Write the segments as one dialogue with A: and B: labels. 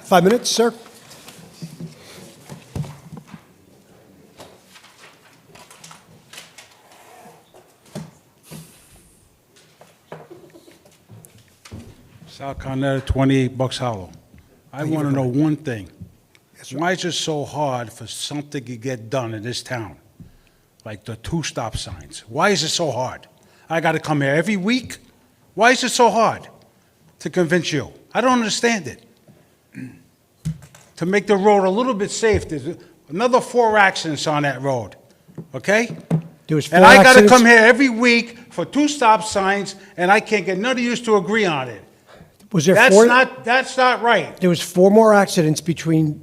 A: Five minutes, sir.
B: South Carolina, 28 Bucks Hollow. I want to know one thing.
A: Yes, sir.
B: Why is it so hard for something to get done in this town? Like the two stop signs. Why is it so hard? I got to come here every week? Why is it so hard to convince you? I don't understand it. To make the road a little bit safe, there's another four accidents on that road, okay?
A: There was
B: And
A: four
B: I gotta
A: accidents.
B: come here every week for two stop signs, and I can't get none of yous to agree on it.
A: Was there
B: That's
A: four?
B: not, that's not right.
A: There was four more accidents between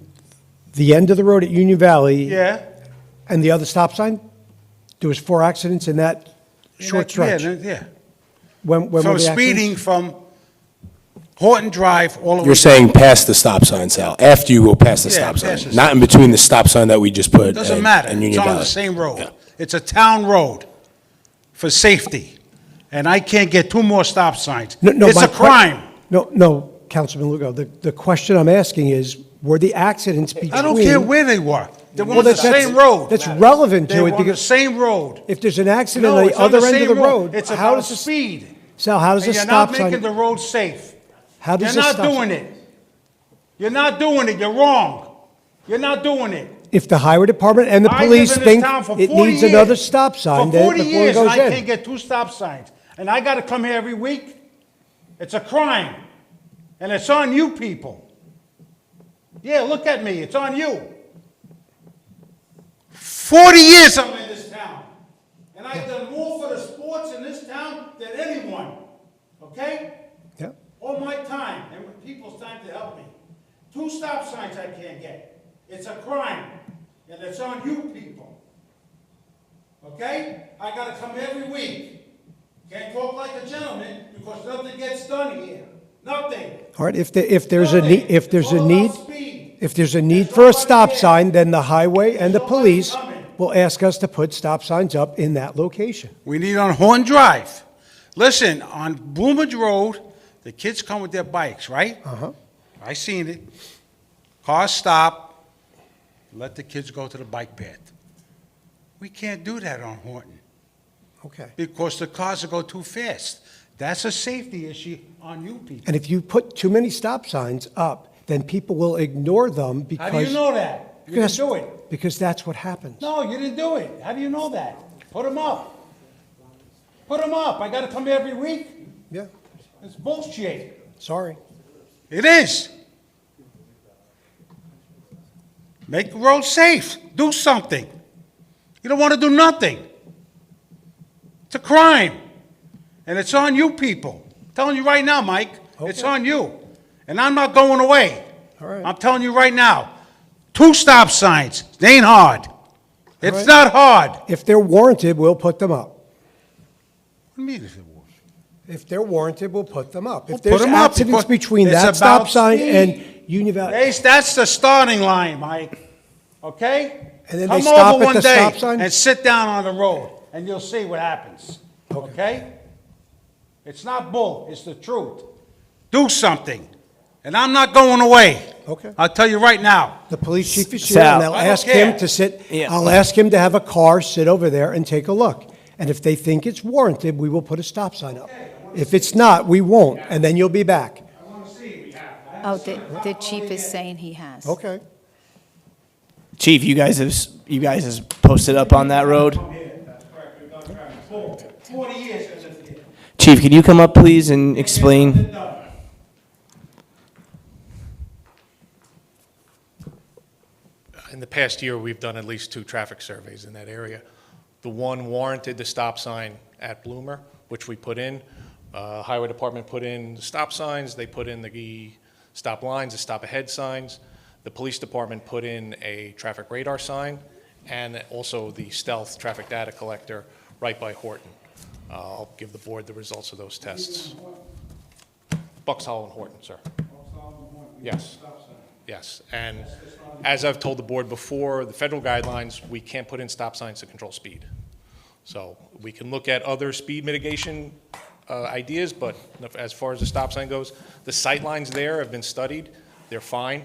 A: the end of the road at Union Valley
B: Yeah?
A: and the other stop sign. There was four accidents in that short
B: Yeah,
A: stretch.
B: Yeah.
A: When, when were
B: From
A: the accidents?
B: speeding from Horton Drive all the way.
C: You're saying past the stop sign, Sal, after you go past the
B: Yeah,
C: stop
B: past
C: sign,
B: the
C: not in between the stop sign that we just put.
B: Doesn't
C: and-
B: matter.
C: and
B: It's
C: Union
B: on the
C: Valley.
B: same
C: Yeah.
B: road. It's a town road for safety, and I can't get two more stop signs.
A: No, no,
B: It's
A: my
B: a
A: que-
B: crime.
A: No, no, Councilman Lugo, the, the question I'm asking is, were the accidents between?
B: I don't care where they were. They were
A: Well,
B: on the
A: that's- that's-
B: same road.
A: that's relevant to
B: They
A: it
B: were on the
A: because-
B: same road.
A: If there's an accident
B: No,
A: on
B: it's
A: the other
B: same
A: end of the road,
B: It's
A: how
B: about
A: does this,
B: speed.
A: Sal, how does
B: And
A: this
B: you're not
A: stop
B: making the
A: sign?
B: road safe.
A: How does
B: You're
A: this
B: not
A: stop?
B: doing
A: sign-
B: it. You're not doing it. You're wrong. You're not doing it.
A: If the highway department and the
B: I've been
A: police
B: in this
A: think
B: town for
A: it
B: 40
A: needs another
B: years.
A: stop sign,
B: For
A: then
B: 40
A: before it
B: years, and I
A: goes
B: can't
A: in.
B: get two stop signs. And I got to come here every week? It's a crime. And it's on you people. Yeah, look at me. It's on you. 40 years I'm in this town. And I've done more for the sports in this town than anyone. Okay?
A: Yeah.
B: all my time and with people's time to help me. Two stop signs I can't get. It's a crime, and it's on you people. Okay? I gotta come every week. Can't talk like a gentleman because nothing gets done here. Nothing.
A: All right, if, the- if there's a,
B: Nothing.
A: nee- if there's
B: It's
A: a
B: all
A: need,
B: about speed.
A: if there's a need
B: There's
A: for a
B: nobody
A: stop
B: there.
A: sign, then the highway and the
B: There's nobody
A: police
B: coming.
A: will ask us to put stop signs up in that location.
B: We need on Horn Drive. Listen, on Bloomage Road, the kids come with their bikes, right? Uh-huh. I seen it. Cars stop, let the kids go to the bike path. We can't do that on Horton
A: Okay.
B: because the cars will go too fast. That's a safety issue on you people.
A: And if you put too many stop signs up, then people will ignore them
B: How
A: because.
B: do you know that? You didn't
A: Because-
B: do it.
A: Because that's what happens.
B: No, you didn't do it. How do you know that? Put them up. Put them up. I gotta come every week?
A: Yeah,
B: It's bullshit.
A: sorry.
B: It is. Make the road safe. Do something. You don't want to do nothing. It's a crime. And it's on you people. I'm telling you right now, Mike, it's
A: Okay.
B: on you. And I'm not going away.
A: All right.
B: I'm telling you right now. Two stop signs. They ain't hard. It's
A: right.
B: not hard. What
A: If they're warranted, we'll put them up.
B: do you mean if it was?
A: If they're warranted, we'll put them up.
B: We'll
A: If
B: put
A: there's
B: 'em up
A: accidents
B: because
A: between
B: it's
A: that stop
B: about
A: sign
B: speed.
A: and Union Valley,
B: They- That's the starting line, Mike. Okay?
A: And then they
B: Come
A: stop
B: over
A: at
B: one
A: the
B: day
A: stop sign?
B: And sit down on the road, and you'll see what happens. Okay? It's not bull, it's the truth. Do something. And I'm not going away.
A: Okay.
B: I'll tell you right now.
A: the police chief is here,
D: Sal.
A: and I'll
B: I don't
A: ask him
B: care.
A: to sit,
D: Yeah.
A: I'll ask him to have a car sit over there and take a look. And if they think it's warranted, we will put a stop sign up. If it's not, we won't, and then you'll be back.
E: Oh, the, the chief is saying he has.
A: Okay.
D: Chief, you guys have s- you guys has posted up on that road.
B: Forty years I lived here.
D: Chief, can you come up, please, and explain?
F: In the past year, we've done at least two traffic surveys in that area. The one warranted the stop sign at Bloomer, which we put in. Uh, Highway Department put in the stop signs, they put in the E stop lines, the stop ahead signs. The Police Department put in a traffic radar sign and also the stealth traffic data collector right by Horton. Uh, I'll give the board the results of those tests. Bucks Hollow and Horton, sir. Yes. Yes, and as I've told the board before, the federal guidelines, we can't put in stop signs to control speed. So we can look at other speed mitigation uh, ideas, but as far as the stop sign goes, the sight lines there have been studied, they're fine.